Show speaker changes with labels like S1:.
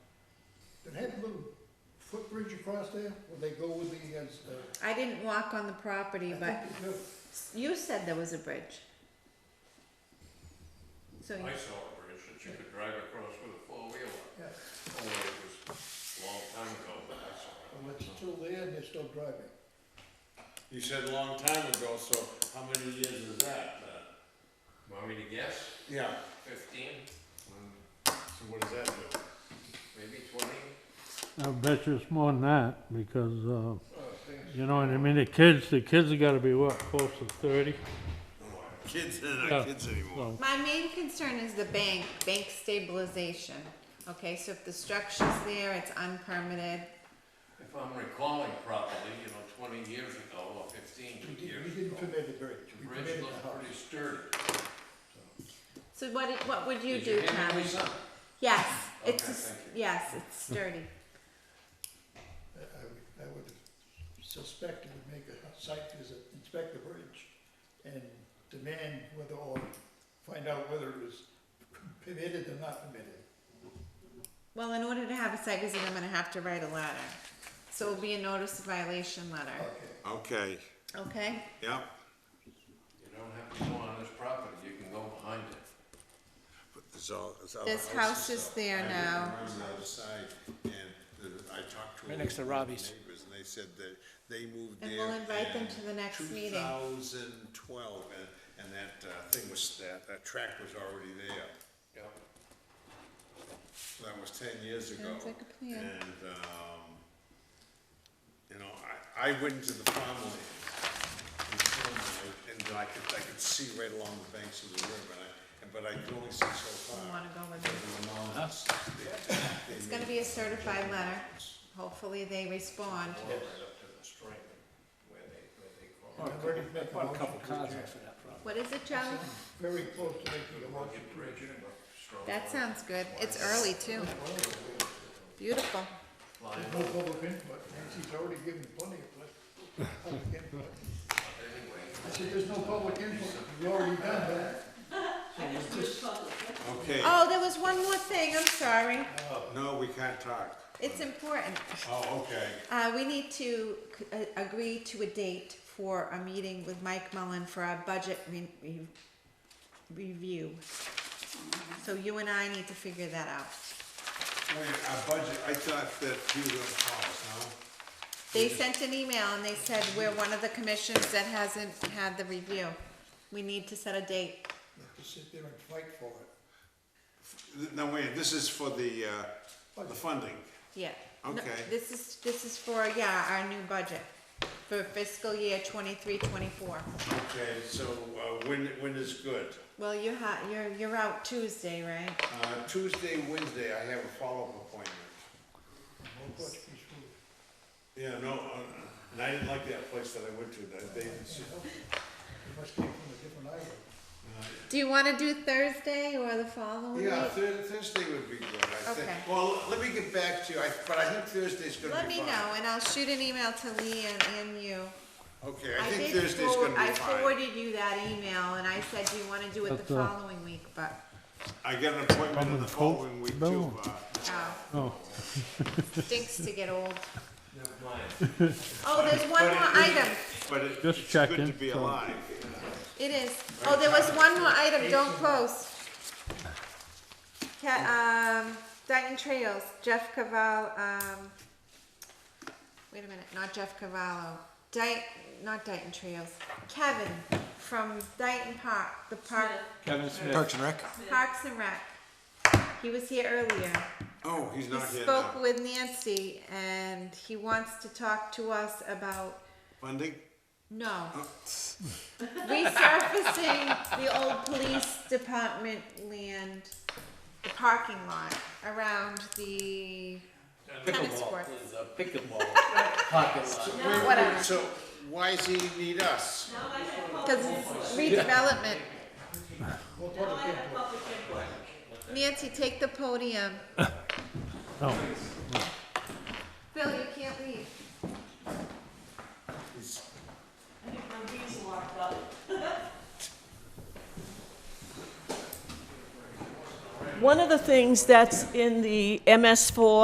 S1: bridge across there? Would they go with the, uh, against the?
S2: I didn't walk on the property,
S1: I
S2: but
S1: think they do.
S2: you said there was a bridge. So,
S3: I saw a bridge that you could drive across with a four-wheeler,
S1: Yeah,
S3: only it was a long time ago that I saw it.
S1: well, it's still there and they're still driving.
S4: You said a long time ago, so how many years is that? Uh,
S3: Want me to guess?
S4: Yeah,
S3: Fifteen,
S4: so what does that do?
S3: maybe twenty?
S5: I bet you it's more than that, because, uh,
S1: Oh, thanks.
S5: you know what I mean, the kids, the kids have gotta be what, close to thirty?
S4: Kids, they're
S5: Yeah.
S4: not kids anymore.
S5: So,
S2: my main concern is the bank, bank stabilization. Okay, so if the structure's there, it's unpermitted.
S3: If I'm recalling properly, you know, twenty years ago or fifteen
S1: We didn't,
S3: years
S1: we
S3: ago,
S1: didn't permit the bridge,
S3: the
S1: we
S3: bridge
S1: permitted the
S3: looked
S1: house.
S3: pretty sturdy.
S2: So what, i- what would you
S3: Did
S2: do,
S3: hand me
S2: Tommy?
S3: some?
S2: Yes,
S3: Okay,
S2: it's, a s-
S3: thank
S2: yes, it's sturdy.
S1: I, I would- I would suspect it would make a site visit, inspect the bridge and demand whether, or find out whether it was permitted or not permitted.
S2: Well, in order to have a site visit, I'm gonna have to write a letter. So it'll be a notice of violation letter,
S1: Okay.
S4: Okay,
S2: okay?
S4: yeah.
S3: You don't have to go on this property, you can go behind it.
S4: So, so.
S2: This
S4: the
S2: house is there
S4: I lived
S2: now.
S4: when I was outside, and the- I talked to.
S6: Right next to Robbie's.
S4: Neighbors, and they said that they moved
S2: And
S4: there.
S2: we'll invite them
S4: in
S2: to the next meeting.
S4: 2012, and, and that uh, thing was, that, that track was already there.
S3: Yeah.
S4: So That was ten years ago.
S2: Sounds like a plan.
S4: And, um, you know, I, I went into the farmland. in Cornwall, And I could, I could see right along the banks of the river, and I, and- but I could only see so
S2: You
S4: far.
S2: wanna go with
S4: There
S2: it?
S4: were mountains. They- they
S2: It's gonna
S4: made
S2: be a certified letter. Hopefully they respond.
S3: All right up to the stream, where they, where they
S6: I
S3: call it.
S6: bought a couple cars off of that property.
S2: What is it, Charlie?
S1: Very close to making a motion
S3: Rugged
S1: to
S3: bridge,
S1: adjourn.
S3: but strong.
S2: That sounds good. It's early too. Beautiful.
S3: Line
S1: There's no public input, Nancy's already given plenty of pla- public input.
S3: up anyway.
S1: I said, there's no public input, we already done that. So it's just,
S4: Okay,
S2: Oh, there was one more thing. I'm sorry.
S4: no, we can't talk.
S2: It's important.
S4: Oh, okay.
S2: Uh, we need to c- a- agree to a date for a meeting with Mike Mullen for our budget re- re- review. So you and I need to figure that out.
S4: Wait, our budget, I thought that you were gonna call us, no?
S2: They sent an email and they said we're one of the commissions that hasn't had the review. We need to set a date.
S1: you have to sit there and fight for it.
S4: Th- No, wait, this is for the, uh, the funding.
S2: Yeah. No,
S4: Okay.
S2: This is, this is for, yeah, our new budget for fiscal year twenty-three, twenty-four.
S4: Okay, so, uh, when, when is good?
S2: Well, you're hot, you're, you're out Tuesday, right?
S4: Uh, Tuesday, Wednesday, I have a follow-up appointment.
S1: No Portuguese food.
S4: Yeah, no, uh, and I didn't like that place that I went to, that they,
S1: It must came from a different island.
S2: Do you wanna do Thursday or the following
S4: yeah,
S2: week?
S4: Thur- Thursday would be good, I think.
S2: Okay.
S4: Well, let me get back to you, I, but I think Thursday's gonna be
S2: Let me
S4: fine.
S2: know and I'll shoot an email to Lee and, and you.
S4: Okay, I think
S2: did
S4: Thursday's
S2: forward-
S4: gonna be
S2: I
S4: fine.
S2: forwarded you that email and I said, do you wanna do it
S5: That's,
S2: the
S5: uh,
S2: following week, but,
S4: I got an appointment in the
S5: Coming cold,
S4: following week too,
S5: no.
S4: uh,
S2: oh,
S5: no,
S2: stinks to get old. Oh, there's one more item.
S4: but it-
S5: Just
S4: it's good to
S5: checking,
S4: be
S5: so-
S4: alive.
S2: It is. Oh, there was one more item, don't close. Ca- um, Dayton Trails, Jeff Caval, um, wait a minute, not Jeff Cavallo. Dayton, not Dayton Trails. Kevin from Dayton Park, the park,
S6: Kevin Smith.
S7: Parks and Rec?
S2: Parks and Rec. He was here earlier.
S4: Oh, he's
S2: He
S4: not here
S2: spoke
S4: now.
S2: with Nancy and he wants to talk to us about
S4: Funding?
S2: no. Resurfacing the old police department land, the parking lot around the tennis court.
S4: Wait,
S2: Whatever.
S4: wait, So why does he need us?
S2: Because it's redevelopment. Nancy, take the podium.
S5: no.
S2: Bill, you can't leave.
S8: One of the things that's in the MS4